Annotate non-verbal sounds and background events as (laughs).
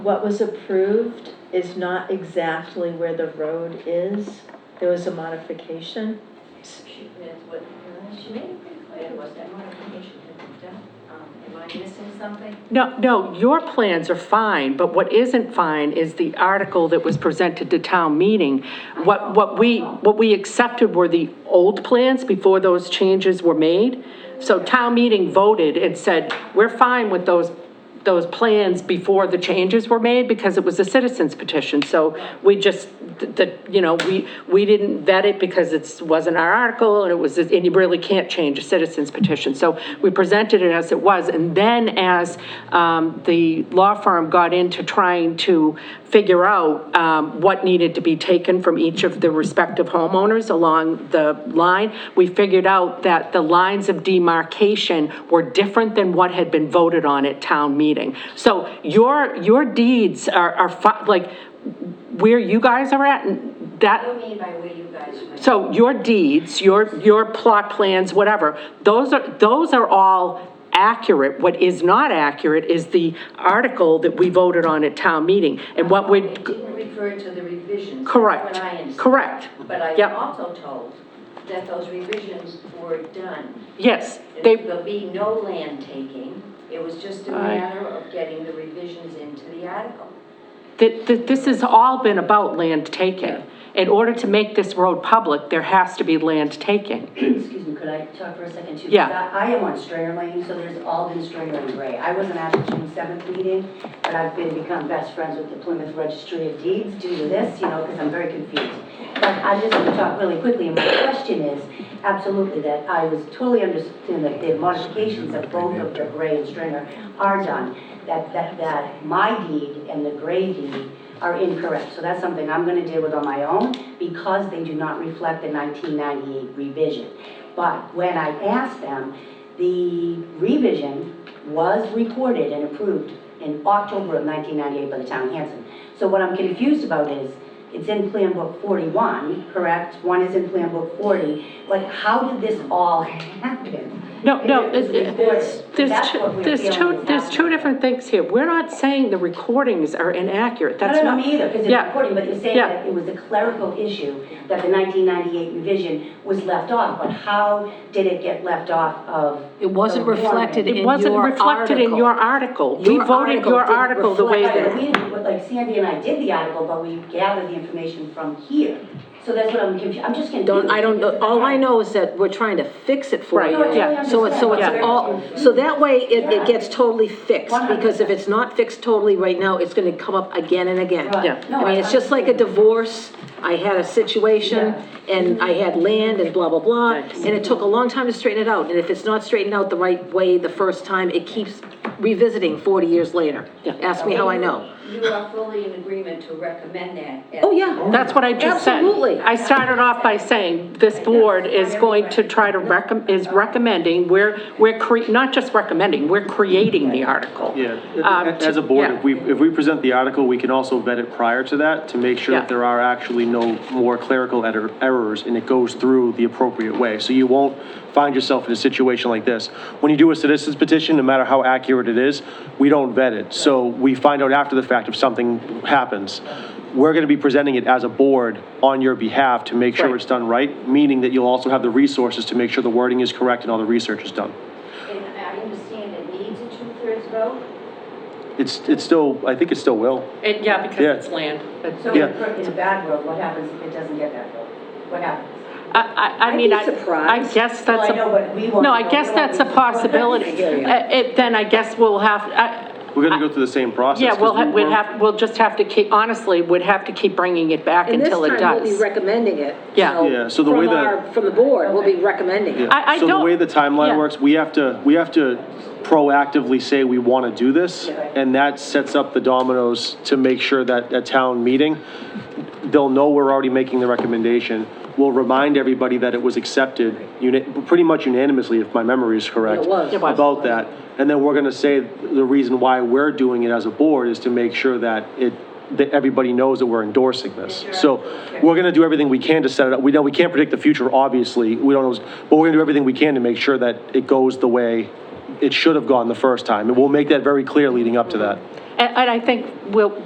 What was approved is not exactly where the road is. There was a modification. She, that's what, uh, she made it pretty clear, was that modification had been done. Um, Am I missing something? No, no, your plans are fine, but what isn't fine is the article that was presented to town meeting. What, what we, what we accepted were the old plans before those changes were made. So town meeting voted and said, we're fine with those, those plans before the changes were made because it was a citizen's petition. So we just, the, you know, we, we didn't vet it because it wasn't our article and it was, and you really can't change a citizen's petition. So we presented it as it was. And then as um, the law firm got into trying to figure out um, what needed to be taken from each of the respective homeowners along the line, we figured out that the lines of demarcation were different than what had been voted on at town meeting. So your, your deeds are, are fi- like, where you guys are at, that, What do you mean by where you guys went? so your deeds, your, your plot plans, whatever, those are, those are all accurate. What is not accurate is the article that we voted on at town meeting. And what It would, didn't refer to the revisions. that's correct, what I understand. correct. But I am Yep. also told that those revisions were done. Yes, they, There'll be no land taking. It was just a I- matter of getting the revisions into the article. that, that this has all been about land taking. In order to make this road public, there has to be land taking. Excuse me, could I talk for a second too? Yeah. Because I I am on Strayer Lane, so there's all been Strayer and Gray. I wasn't at the June seventh meeting, but I've been, become best friends with the Plymouth Registry of Deeds due to this, you know, because I'm very confused. But I just want to talk really quickly, and my question is, absolutely, that I was totally understanding that the modifications of both of the Gray and Stringer are done. That, that, that my deed and the Gray deed are incorrect. So that's something I'm gonna deal with on my own because they do not reflect the 1998 revision. But when I asked them, the revision was recorded and approved in October of 1998 by the town of Hanson. So what I'm confused about is, it's in Plan Book 41, correct? One is in Plan Book 40. Like, how did this all (laughs) happen? No, no, If it was it- it's- recorded, there's that's what two, we're there's feeling two, is there's two happening. different things here. We're not saying the recordings are inaccurate, that's No, not. no, no, me either, because it's Yeah. recording, but you're saying Yeah. that it was a clerical issue, that the 1998 revision was left off, but how did it get left off of? It wasn't the warrant? reflected in It wasn't your reflected in your article. We Your voted article your didn't article the way reflect Right, but that. we didn't, but like Sandy and I did the article, but we gathered the information from here. So that's what I'm confused, I'm just confused. Don't, I don't, know. all I know is that we're trying to fix it for Right, you. No, I totally yeah. So it's, so it's understand. all, so that way it, Yeah. it gets totally fixed, because if it's not fixed totally right now, it's gonna come up again and again. Right. Yeah. No, I mean, it's just like a divorce, I had a situation, and I had land and blah, blah, blah, and it took a long time to straighten it out, and if it's not straightened out the right way the first time, it keeps revisiting forty years later. Yeah. Ask me how I know. You are fully in agreement to recommend that. as- Oh, yeah. That's what I just said. Absolutely. I started off by saying, this board is going to try to recommend, is recommending, we're, we're cre, not just recommending, we're creating the article. Um, Yeah, as a board, yeah. if we, if we present the article, we can also vet it prior to that to make sure Yeah. that there are actually no more clerical error- errors and it goes through the appropriate way. So you won't find yourself in a situation like this. When you do a citizen's petition, no matter how accurate it is, we don't vet it. So we find out after the fact if something happens. We're going to be presenting it as a board on your behalf to make Right. sure it's done right, meaning that you'll also have the resources to make sure the wording is correct and all the research is done. And I understand it needs a two-thirds vote, It's, it's still, I think it still will. It- Yeah, because Yeah. it's land. It's- So Yeah. in a bad world, what happens if it doesn't get that vote? What happens? I, I, I mean, I, I guess Well, that's I a. know, but we won't No, I know. guess We won't that's a be surprised. possibility. (laughs) I hear you. Uh, it- then I guess we'll have, I, We're gonna go through the same process. yeah, we'll, 'cause ha- we we'd weren't- have, we'll just have to keep, honestly, we'd have to keep bringing it back until it does. And this time, we'll be recommending it. Yeah. Yeah, so the way from that- our- From the board, we'll be recommending it. Yeah. I- I So don't- the way the yeah. timeline works, we have to, we have to proactively say we wanna do this, and that sets up the dominoes to make sure that at town meeting, they'll know we're already making the recommendation. We'll remind everybody that it was accepted, uni, pretty much unanimously, if my memory is correct. It was. It was. About that, and then we're gonna say the reason why we're doing it as a board is to make sure that it, that everybody knows that we're endorsing this. So, we're gonna do everything we can to set it up, we know we can't predict the future, obviously, we don't know, but we're gonna do everything we can to make sure that it goes the way it should have gone the first time, and we'll make that very clear leading up to that. and I think we'll,